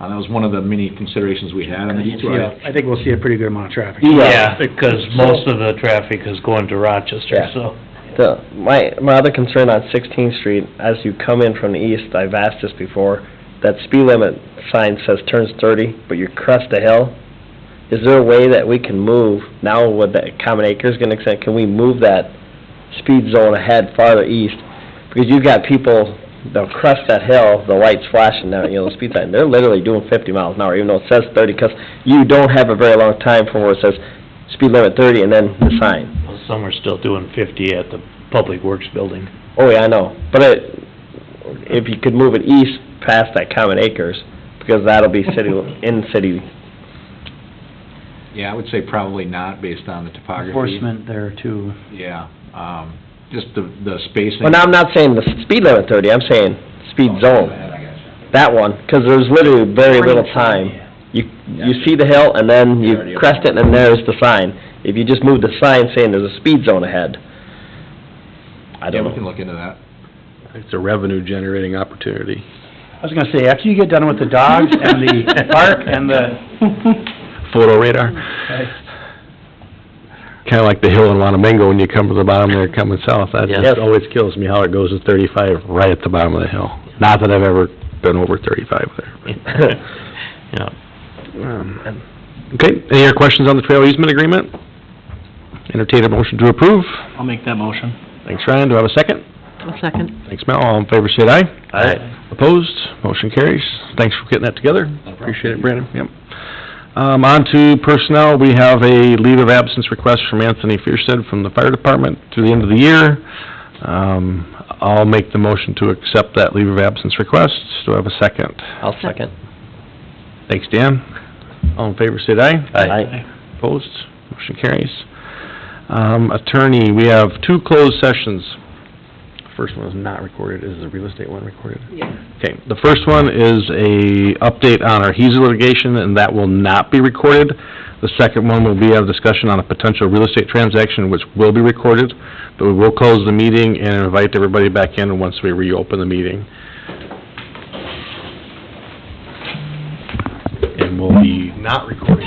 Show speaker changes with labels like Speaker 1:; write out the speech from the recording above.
Speaker 1: Uh, that was one of the many considerations we had on the detour.
Speaker 2: I think we'll see a pretty good amount of traffic.
Speaker 3: Yeah, because most of the traffic is going to Rochester,
Speaker 4: Yeah.
Speaker 3: so.
Speaker 4: The, my, my other concern on Sixteenth Street, as you come in from the east, I've asked this before, that speed limit sign says turns thirty, but you crest the hill. Is there a way that we can move, now with the common acres gonna extend, can we move that speed zone ahead farther east? Because you've got people, they'll crest that hill, the lights flashing now, you know, the speed sign, they're literally doing fifty miles an hour, even though it says thirty, 'cause you don't have a very long time from where it says speed limit thirty and then the sign.
Speaker 3: Some are still doing fifty at the Public Works Building.
Speaker 4: Oh, yeah, I know, but it, if you could move it east past that common acres, because that'll be city, in city,
Speaker 1: Yeah, I would say probably not based on the topography.
Speaker 2: Enforcement there too.
Speaker 1: Yeah, um, just the, the spacing.
Speaker 4: well, now, I'm not saying the speed limit thirty, I'm saying speed zone, that one, because there's literally very little time. You, you see the hill, and then you crest it, and then there's the sign. If you just move the sign saying there's a speed zone ahead, I
Speaker 1: Yeah,
Speaker 4: don't
Speaker 1: we can
Speaker 4: know.
Speaker 1: look into that.
Speaker 5: It's a revenue generating opportunity.
Speaker 2: I was gonna say, after you get done with the dogs and the park and the,
Speaker 5: Photo radar. Kinda like the hill in Wanamingo, when you come to the bottom there coming south, that
Speaker 4: Yes.
Speaker 5: just always kills me how it goes to thirty-five right at the bottom of the hill. Not that I've ever been over thirty-five there.
Speaker 3: Yeah.
Speaker 5: but, um, Okay, any other questions on the trail easement agreement? Entertain a motion to approve.
Speaker 2: I'll make that motion.
Speaker 5: Thanks, Ryan, do I have a second?
Speaker 6: I'll second.
Speaker 5: Thanks, Mel, all in favor, say aye. Opposed, motion carries. Thanks for getting that together. Appreciate it, Brandon, yep. Um, on to personnel, we have a leave of absence request from Anthony Fierstead from the fire department through the end of the year. Um, I'll make the motion to accept that leave of absence request. Do I have a second?
Speaker 4: I'll second.
Speaker 5: Thanks, Dan. All in favor, say aye.
Speaker 4: Aye.
Speaker 5: Opposed, motion carries. Um, attorney, we have two closed sessions. First one is not recorded, is the real estate one recorded?
Speaker 6: Yes.
Speaker 5: Okay, the first one is a update on our HESA litigation, and that will not be recorded. The second one will be a discussion on a potential real estate transaction, which will be recorded, but we will close the meeting and invite everybody back in once we reopen the meeting. And will be not recorded.